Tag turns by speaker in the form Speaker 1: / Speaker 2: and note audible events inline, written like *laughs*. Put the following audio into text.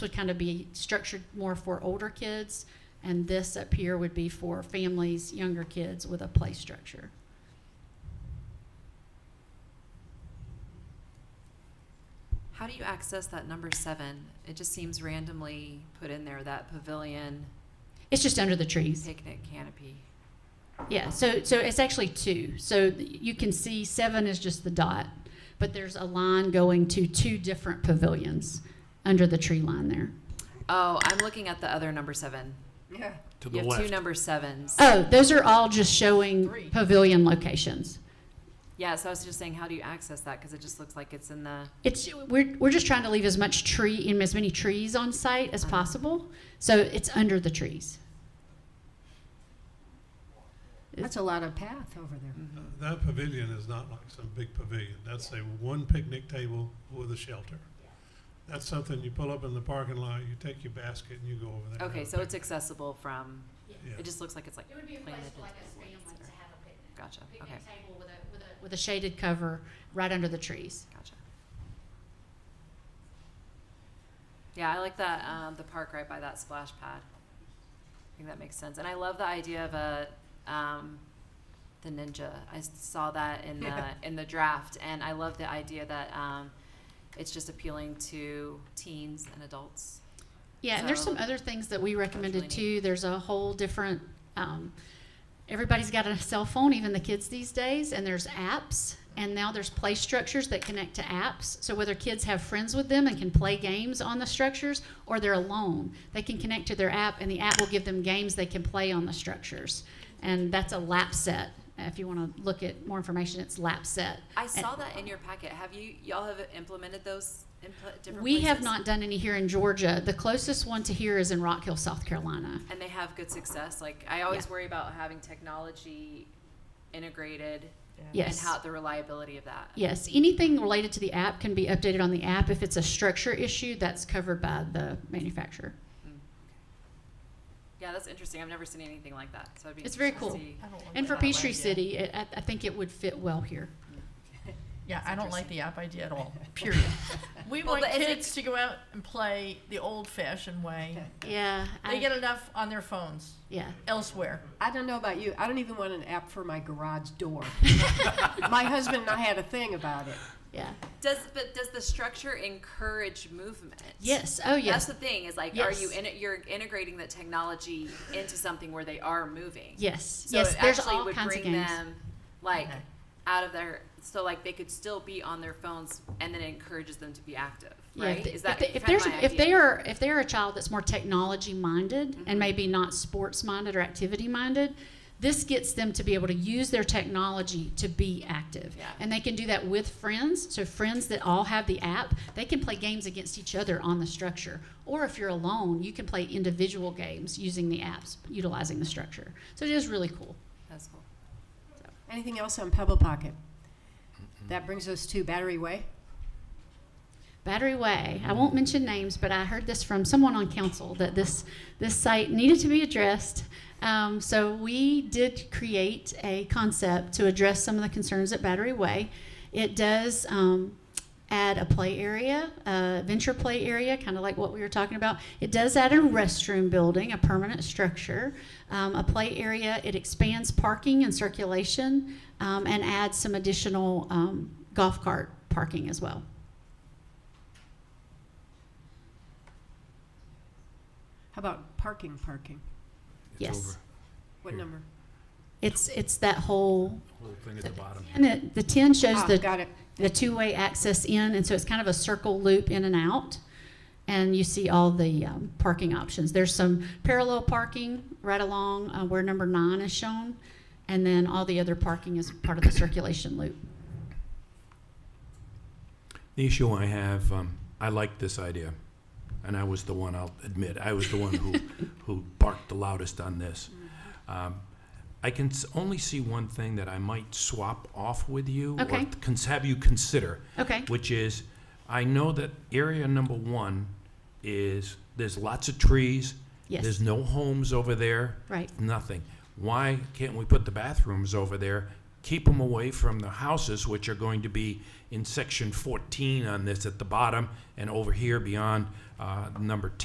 Speaker 1: would kind of be structured more for older kids, and this up here would be for families, younger kids with a play structure.
Speaker 2: How do you access that number seven? It just seems randomly put in there, that pavilion
Speaker 1: It's just under the trees.
Speaker 2: picnic canopy.
Speaker 1: Yeah, so, so it's actually two. So th- you can see seven is just the dot, but there's a line going to two different pavilions under the tree line there.
Speaker 2: Oh, I'm looking at the other number seven.
Speaker 3: Yeah.
Speaker 2: You
Speaker 4: to the
Speaker 2: have two
Speaker 4: left.
Speaker 2: number sevens.
Speaker 1: Oh, those are all just showing
Speaker 3: Three.
Speaker 1: pavilion locations.
Speaker 2: Yeah, so I was just saying, how do you access that? Because it just looks like it's in the,
Speaker 1: It's, we're, we're just trying to leave as much tree, and as many trees on site as
Speaker 2: Uh-huh.
Speaker 1: possible, so it's under the trees.
Speaker 3: That's a lot of path over there.
Speaker 2: mm-hmm.
Speaker 5: Uh, That pavilion is not like some big pavilion. That's a one picnic table with a shelter. That's something you pull up in the parking lot, you take your basket and you go over
Speaker 4: Uh,
Speaker 5: there. and
Speaker 2: okay,
Speaker 5: have a
Speaker 2: so it's
Speaker 5: picnic.
Speaker 2: accessible from,
Speaker 5: Yeah.
Speaker 2: it just looks like it's like,
Speaker 1: It would be a place
Speaker 2: planted.
Speaker 1: for like a family to have a picnic.
Speaker 2: Gotcha, okay,
Speaker 1: Picnic table with a, with a, with a shaded cover right under the trees.
Speaker 2: gotcha. Yeah, I like that, um, the park right by that splash pad. I think that makes sense. And I love the idea of a, um, the ninja. I s- saw that in
Speaker 1: *laughs*
Speaker 2: the, in the draft, and I love the idea that, um, it's just appealing to teens and adults.
Speaker 1: Yeah, and there's
Speaker 2: So-
Speaker 1: some other things that we recommended
Speaker 2: That's really
Speaker 1: too. There's a whole different, um, everybody's got a cell phone, even the kids these days, and there's apps. And now there's play structures that connect to apps. So whether kids have friends with them and can play games on the structures or they're alone, they can connect to their app and the app will give them games they can play on the structures. And that's a lap set. If you want to look at more information, it's lap set.
Speaker 2: I saw that in your packet. Have you, y'all have implemented those in pla- different
Speaker 1: We have
Speaker 2: places?
Speaker 1: not done any here in Georgia. The closest one to here is in Rock Hill, South Carolina.
Speaker 2: And they have good success. Like, I always
Speaker 1: Yeah.
Speaker 2: worry about having technology integrated
Speaker 1: Yes.
Speaker 2: and how the reliability of that.
Speaker 1: Yes, anything related to the app can be updated on the app. If it's a structure issue, that's covered by the manufacturer.
Speaker 2: Mm. Yeah, that's interesting. I've never seen anything like that. So I'd be
Speaker 1: It's very
Speaker 2: interested to
Speaker 1: cool.
Speaker 2: see.
Speaker 1: And for
Speaker 2: that way,
Speaker 1: Peachtree
Speaker 2: yeah.
Speaker 1: City, it, I, I think it would fit well here.
Speaker 6: Yeah,
Speaker 2: That's
Speaker 6: I don't like
Speaker 2: interesting.
Speaker 6: the app idea at all, period. We
Speaker 2: Well,
Speaker 6: want
Speaker 2: but it's
Speaker 6: kids to go out and play the old fashioned way.
Speaker 1: Yeah.
Speaker 6: They get enough on their phones
Speaker 1: yeah.
Speaker 6: elsewhere.
Speaker 3: I don't know about you. I don't even want an app for my garage door. my husband and I had a thing about it.
Speaker 1: Yeah.
Speaker 2: Does but does the structure encourage movement?
Speaker 1: Yes. Oh,
Speaker 2: That's
Speaker 1: yes.
Speaker 2: the thing. Is like, are you
Speaker 1: Yes.
Speaker 2: in it? You're integrating the technology into something where they are moving.
Speaker 1: Yes.
Speaker 2: So
Speaker 1: yes.
Speaker 2: it
Speaker 1: There's
Speaker 2: actually
Speaker 1: all
Speaker 2: would
Speaker 1: kinds
Speaker 2: bring
Speaker 1: of games.
Speaker 2: them like
Speaker 6: Okay.
Speaker 2: out of their so like they could still be on their phones and then it encourages them to be active.
Speaker 1: Yeah,
Speaker 2: Right?
Speaker 1: if they-
Speaker 2: Is that
Speaker 1: if, they, if
Speaker 2: kind
Speaker 1: there's
Speaker 2: of my
Speaker 1: if
Speaker 2: idea?
Speaker 1: they are if they are a child that's more technology minded
Speaker 2: Mhm.
Speaker 1: and maybe not sports minded or activity minded, this gets them to be able to use their technology to be active,
Speaker 2: Yeah.
Speaker 1: and they can do that with friends. So friends that all have the app, they can play games against each other on the structure. Or if you're alone, you can play individual games using the apps, utilizing the structure. So it is really cool.
Speaker 2: That's cool.
Speaker 3: Anything else on Pebble Pocket? That brings us to Battery Way.
Speaker 1: Battery Way. I won't mention names, but I heard this from someone on council that this this site needed to be addressed. Um, so we did create a concept to address some of the concerns at Battery Way. It does um, add a play area, a venture play area, kind of like what we were talking about. It does add a restroom building, a permanent structure, um, a play area. It expands parking and circulation, um, and adds some additional um, golf cart parking as well.
Speaker 3: How about parking, parking?
Speaker 4: It's
Speaker 1: Yes.
Speaker 4: over.
Speaker 3: What
Speaker 4: Here.
Speaker 3: number?
Speaker 1: It's it's that whole
Speaker 4: Whole thing at the bottom.
Speaker 1: and it, the ten shows
Speaker 3: Ah,
Speaker 1: the
Speaker 3: got it.
Speaker 1: the two way access in, and so it's kind of a circle loop in and out. And you see all the um, parking options. There's some parallel parking right along uh, where number nine is shown, and then all the other parking is part of the circulation loop.
Speaker 4: The issue I have, um, I like this idea, and I was the one, I'll admit, I was the
Speaker 1: *laughs*
Speaker 4: one who, who barked the loudest on this. Um, I can s- only see one thing that I might swap off with you.
Speaker 1: Okay.
Speaker 4: Or cons- have you consider,
Speaker 1: Okay.
Speaker 4: which is, I know that area number one is, there's lots of trees.
Speaker 1: Yes.
Speaker 4: There's no homes over there.
Speaker 1: Right.
Speaker 4: Nothing. Why can't we put the bathrooms over there keep them away from the houses, which are going to be in section 14 on this at the bottom and over here beyond uh, number 10.